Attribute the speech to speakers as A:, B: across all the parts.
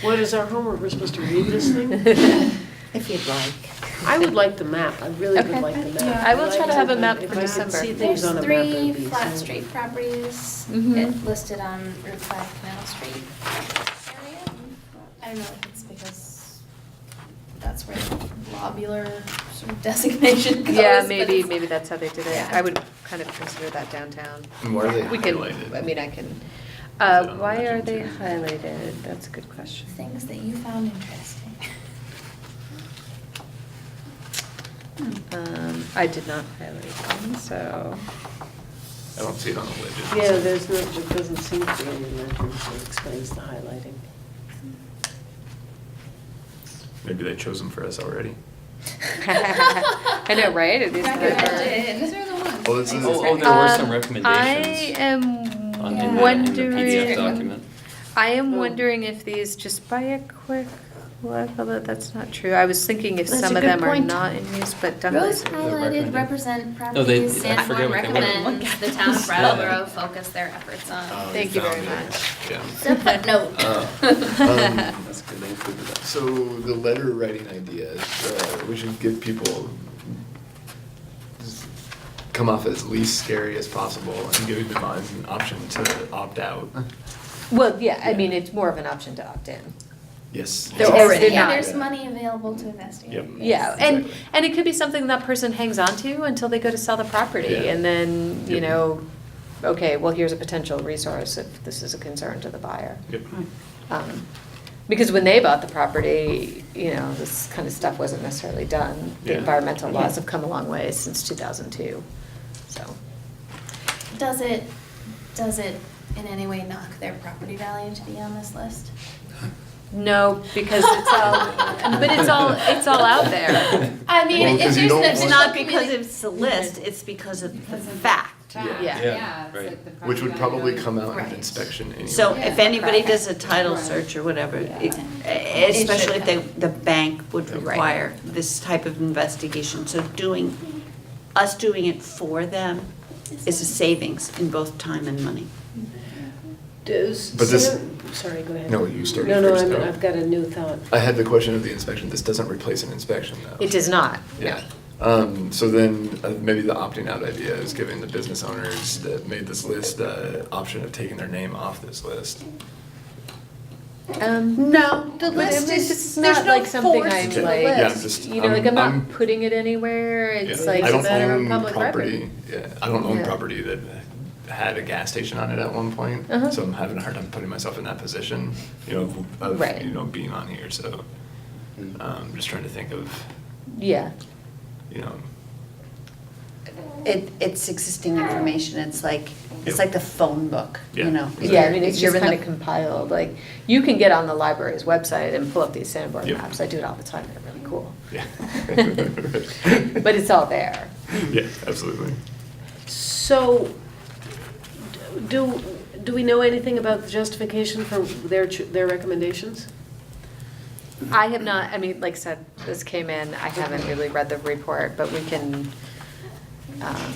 A: What is our homework? We're supposed to read this thing?
B: If you'd like.
A: I would like the map. I really would
C: Okay.
A: like the map.
D: I will
A: I'd
D: try
A: like
D: to have a map
A: if
D: for
A: I could
D: December.
A: see things
D: There's
A: on
D: There's
A: a map, it would
E: There's
A: be
E: three flat
A: so-
E: street properties
D: Mm-hmm.
C: Mhm.
E: it- listed on Route 5 Canal Street area. I don't know if it's because that's where the lobular sort of designation goes.
D: Yeah,
E: but
D: maybe,
E: it's-
D: maybe that's how they did
E: Yeah.
D: it. I would kind of consider that downtown.
F: And why are they
D: We can,
F: highlighted?
D: I mean, I can,
F: Is it
D: uh,
F: on the
D: why are
F: legend
D: they
F: too?
D: highlighted? That's a good question.
E: Things that you found interesting.
D: Um, I did not highlight them, so.
F: I don't see it on the widget.
A: Yeah, there's no, it doesn't seem to be any legend that explains the highlighting.
F: Maybe they chose them for us already.
D: I know, right? It is
F: Recommended.
D: clever.
E: These are the ones.
F: Oh, this is-
E: Thanks.
G: Oh, oh, there were
D: Um,
G: some recommendations
D: I am
G: on,
E: Yeah.
G: in the, uh, in the
D: wondering.
G: PDF document.
D: I am
A: Oh.
D: wondering if these, just by a quick look, although that's not true. I was thinking if
A: That's
D: some
A: a
D: of
A: good
D: them are
A: point.
D: not in use, but definitely.
E: Rose highlighted
G: recommended.
E: represent
F: Oh,
G: No, they-
E: properties
G: I forget
E: Sanborn
G: what they were.
E: recommends the town of
G: Yeah.
E: Brattleboro focus their efforts
F: Oh,
E: on.
D: Uh, Thank you
F: found
D: very
F: it.
D: much.
F: Yeah. Uh,
E: So footnote.
F: Um,
G: That's good, they included that.
F: So the letter writing ideas, uh, we should give people, come off as least scary as possible and giving them an option to opt out.
D: Well, yeah, I
F: Yeah.
D: mean, it's more of an option to opt in.
F: Yes.
D: They're
E: Because
D: already
E: yeah,
D: not.
E: There's money available to investigate.
F: Yep.
E: Yes.
D: Yeah, and,
F: Exactly.
D: and it could be something that person hangs on to until they go to sell the property.
F: Yeah.
D: And then, you
F: Yep.
D: know, okay, well, here's a potential resource if this is a concern to the buyer.
F: Yep.
D: Um, Because when they bought the property, you know, this kind of stuff wasn't necessarily done. The
F: Yeah.
D: environmental laws have come a long way since 2002, so.
E: Does it, does it in any way knock their property value to be on this list?
D: No, Oh, because it's all, but it's all, it's all out there.
E: I mean,
F: Well,
E: if
F: 'cause
E: there's
F: you
E: an
F: don't
E: additional
F: want-
B: It's not because
E: communi-
B: it's a list,
D: Mhm.
B: it's because of the fact.
F: Yeah.
D: Yeah.
G: right.
F: Which would probably come out in
E: Right.
F: inspection anyway.
B: So if anybody
D: Correct.
B: does a title search or whatever, it- especially if they, the bank would
D: Right.
B: require this type of investigation. So doing, us doing it for them is a savings in both time and money.
A: Does,
F: But this-
A: Sam- sorry, go ahead.
F: No, you started
A: No, no,
F: first,
A: I'm-
F: though.
A: I've got a new thought.
F: I had the question of the inspection. This doesn't replace an inspection, though.
D: It does not, no.
F: Yeah. Um, so then uh, maybe the opting out idea is giving the business owners that made this list the option of taking their name off this list.
D: Um,
B: No, the
D: But it- it's just not like something I'm
F: to the
D: like,
F: Yeah, I'm just-
D: you know, like I'm
F: I'm- I'm-
D: not putting it anywhere, it's
F: Yeah.
D: like
F: I
D: a
F: don't
D: matter of
F: own
D: public
F: property.
D: record.
F: Yeah, I don't own
D: Yeah.
F: property that had a gas station on it at one point,
D: Uh-huh.
F: so I'm having a hard time putting myself in that position, you know, of
D: Right.
F: you know being on here. So um, just trying to think of
D: Yeah,
F: you know
B: It, it's existing information, it's like,
F: Yep.
B: it's like the phone book,
F: Yeah.
B: you know?
F: Exactly.
D: yeah, I mean, it's
B: You're
D: just
B: in the-
D: kind of compiled, like, you can get on the library's website and pull up these sandboard
F: Yep.
D: maps, I do it all the time, they're really cool.
F: yeah.
D: But it's all there.
F: yeah, absolutely.
A: So, do, do we know anything about the justification for their, ch- their recommendations?
D: I have not, I mean, like I said, this came in, I haven't really read the report, but we can, um,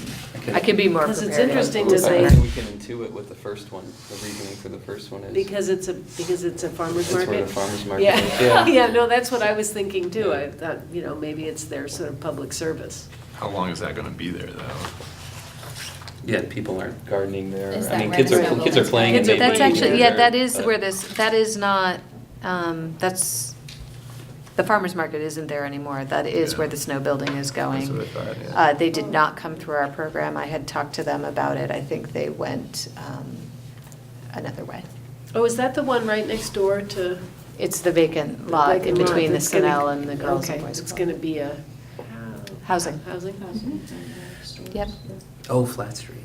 D: I can be more prepared.
A: Because it's interesting to
G: I
A: say-
G: think We can intuit what the first one, the reasoning for the first one is.
A: Because it's a, because it's a farmer's
G: It's where
A: market?
G: the farmer's market is,
A: Yeah,
G: yeah.
A: yeah, no, that's what I was thinking too. I thought, you know, maybe it's their sort of public service.
F: How long is that going to be there, though?
G: Yeah, people aren't gardening there.
E: Is
G: I
E: that
G: mean, kids are,
A: recommendable?
G: kids are playing and
A: Kids are
G: they.
D: That's
A: playing
D: actually,
A: there.
D: yeah, that is
G: But-
D: where this, that is not, um, that's, the farmer's market isn't there anymore. That is
F: Yeah.
D: where the snow building is
F: That's what I
D: going.
F: thought, yeah.
D: Uh, They did not come through our program. I had talked to them about it. I think they went um, another way.
A: Oh, is that the one right next door to?
D: It's the vacant lot in
A: Like,
D: between the
A: it's gonna-
D: Sunel and the Girls and
A: okay,
D: Boys
A: It's
D: Club.
A: gonna be a.
D: Housing.
A: Housing?
D: Yep.
G: Oh, Flat Street.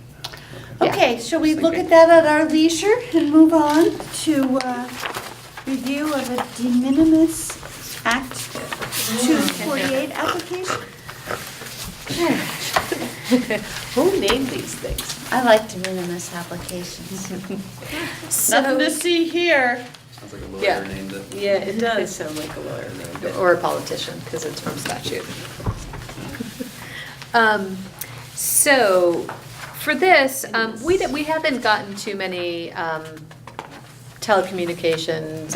D: Yeah.
B: Okay, shall we look
G: Sleeping.
B: at that at our leisure and move on to uh, review of a de minimis Act 248 application?
A: Who named these things?
B: I like de minimis applications.
D: So-
B: see here.
G: Sounds like a
D: Yeah.
G: lawyer named it.
A: Yeah, it does sound like a lawyer.
D: Or a politician, because it's from statute. Um, So, for this, um, we, we haven't gotten too many um, telecommunications